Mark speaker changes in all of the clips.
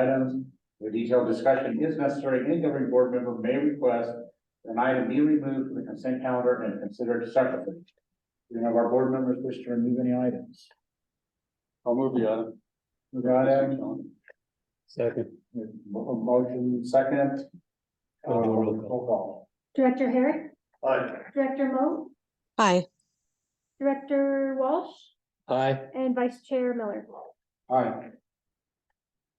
Speaker 1: items. The detailed discussion is necessary. Any governing board member may request an item be removed from the consent calendar and considered separately. Do any of our board members wish to remove any items?
Speaker 2: I'll move the item.
Speaker 1: Move on, Adam.
Speaker 2: Second.
Speaker 1: Mo- Motion second. Uh,
Speaker 2: Uh, roll call.
Speaker 1: roll call.
Speaker 3: Director Herrick,
Speaker 2: Aye.
Speaker 3: Director Mo,
Speaker 4: Aye.
Speaker 3: Director Walsh,
Speaker 2: Aye.
Speaker 3: and Vice Chair Miller.
Speaker 1: Aye.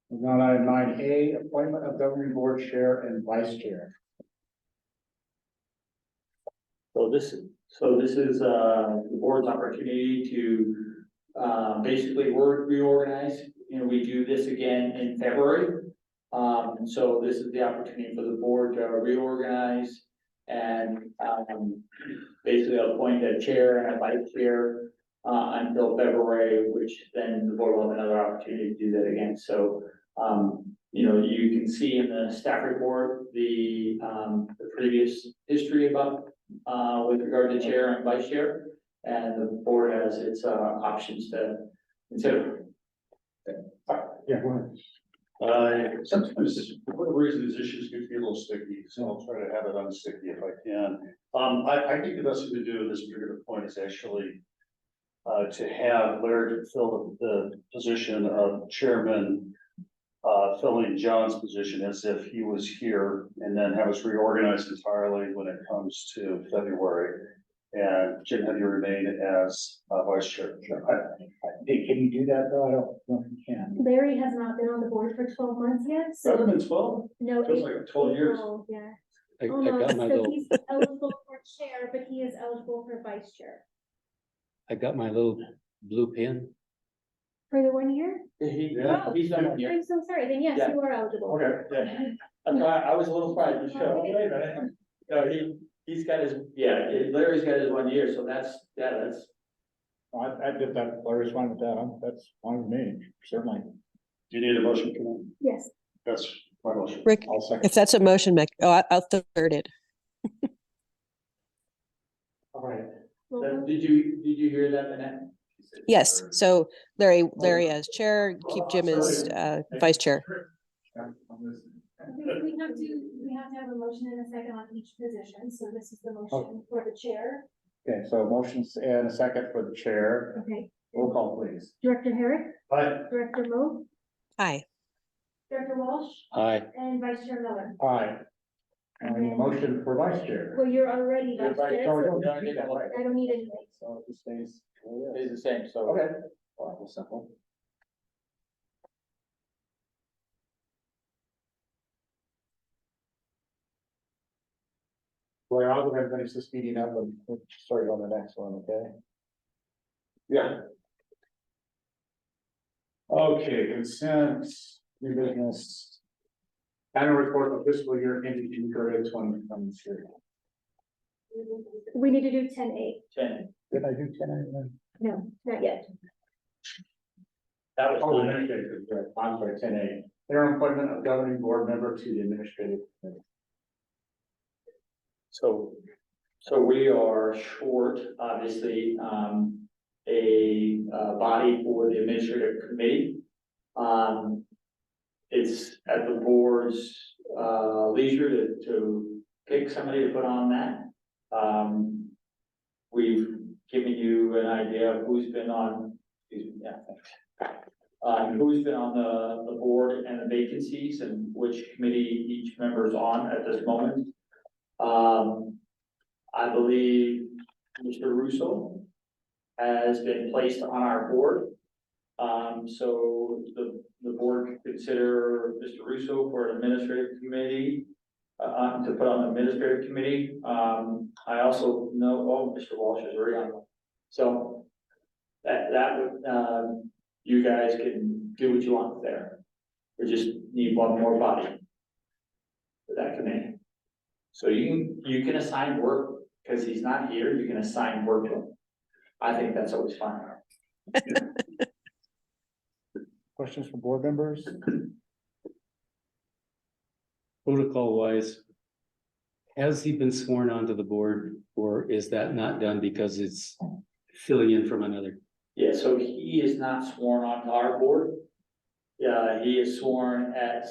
Speaker 1: Moving on, item nine A, appointment of governing board chair and vice chair.
Speaker 5: So this, so this is, uh, the board's opportunity to, uh, basically work, reorganize. And we do this again in February. Um, and so this is the opportunity for the board to reorganize and, um, basically appoint a chair and a vice chair, uh, until February, which then the board will have another opportunity to do that again. So, um, you know, you can see in the staff report, the, um, the previous history about uh, with regard to chair and vice chair. And the board has its, uh, options to consider.
Speaker 1: Yeah, go ahead.
Speaker 2: Uh, sometimes, this- for whatever reason, these issues can be a little sticky, so I'll try to have it unsticky if I can. Um, I, I think the best thing to do at this particular point is actually uh, to have Larry fill the, the position of chairman, uh, filling John's position as if he was here, and then have us reorganized entirely when it comes to February. And Jim, have you remain as uh, vice chair?
Speaker 1: Hey, can you do that though? I don't know if you can.
Speaker 3: Larry has not been on the board for twelve months yet,
Speaker 2: Rather
Speaker 3: so
Speaker 2: than twelve,
Speaker 3: no.
Speaker 2: feels
Speaker 3: eight-
Speaker 2: like twelve years.
Speaker 3: Oh, Yeah.
Speaker 6: I, I
Speaker 3: Oh, no,
Speaker 6: got my
Speaker 3: so
Speaker 6: little,
Speaker 3: He's eligible for chair, but he is eligible for vice chair.
Speaker 6: I got my little blue pen.
Speaker 3: For the one year?
Speaker 5: He-
Speaker 3: Yeah.
Speaker 5: He's done it here.
Speaker 3: I'm so sorry, then yes,
Speaker 5: Yeah.
Speaker 3: you are eligible.
Speaker 5: Okay, yeah. That's why I was a little surprised, you showed.
Speaker 3: Wait
Speaker 5: Wait a minute. No, he, he's got his, yeah, Larry's got his one year, so that's, yeah, that's,
Speaker 1: I, I did that, Larry's fine with that. I'm- That's fine with me, certainly.
Speaker 2: Do you need a motion? for that?
Speaker 3: Yes,
Speaker 2: That's my motion.
Speaker 4: Rick,
Speaker 1: I'll second.
Speaker 4: if that's a motion, make, oh, I- I'll third it.
Speaker 5: all right.
Speaker 3: roll
Speaker 5: That-
Speaker 3: call.
Speaker 5: Did you, did you hear that, Minette?
Speaker 4: Yes, so Larry, Larry as chair, keep Jim as uh, vice chair.
Speaker 3: We we have to, we have to have a motion and a second on each position, so this is the motion for the chair.
Speaker 1: Okay, so motions and a second for the chair.
Speaker 3: Okay.
Speaker 1: Roll call, please.
Speaker 3: Director Herrick,
Speaker 2: Aye.
Speaker 3: Director Mo,
Speaker 4: Aye.
Speaker 3: Director Walsh,
Speaker 6: Aye.
Speaker 3: and Vice Chair Miller.
Speaker 1: Aye. And we need a motion for vice chair.
Speaker 3: Mm-hmm. Well, you're already
Speaker 5: You're
Speaker 3: vice
Speaker 5: vice
Speaker 3: chair,
Speaker 1: Oh, we
Speaker 3: so
Speaker 1: don't need that, right.
Speaker 3: I don't need anything.
Speaker 1: So it just stays.
Speaker 2: Oh,
Speaker 5: It's the same, so.
Speaker 1: Okay. Well, that was simple. Well, I'll go ahead and finish this meeting up and we'll start on the next one, okay?
Speaker 2: Yeah.
Speaker 1: Okay, consent, new business. Annual report of fiscal year ending June thirtieth, twenty twenty three.
Speaker 3: We need to do ten eight,
Speaker 5: Ten.
Speaker 1: Did I do ten A?
Speaker 3: no, not yet.
Speaker 5: That
Speaker 1: Oh,
Speaker 5: was.
Speaker 1: okay, good, good. I'm sorry, ten A. Interim appointment of governing board member to the administrative. committee.
Speaker 5: So, so we are short, obviously, um, a, uh, body for the administrative committee. Um, it's at the board's, uh, leisure to, to pick somebody to put on that. Um, we've given you an idea of who's been on, excuse me, yeah, thanks. Uh, who's been on the, the board and the vacancies and which committee each member is on at this moment. Um, I believe Mr. Russo has been placed on our board. Um, so the, the board could consider Mr. Russo for an administrative committee, uh, uh, to put on the administrative committee. Um, I also know, oh, Mr. Walsh is already on. one. So that, that would, um, you guys can do what you want there. We just need one more body for that committee. So you can, you can assign work, because he's not here, you can assign work to him. I think that's always fun.
Speaker 1: Questions from board members?
Speaker 6: Protocol wise, has he been sworn onto the board or is that not done because it's filling in from another?
Speaker 5: Yeah, so he is not sworn on to our board. Yeah, he is sworn at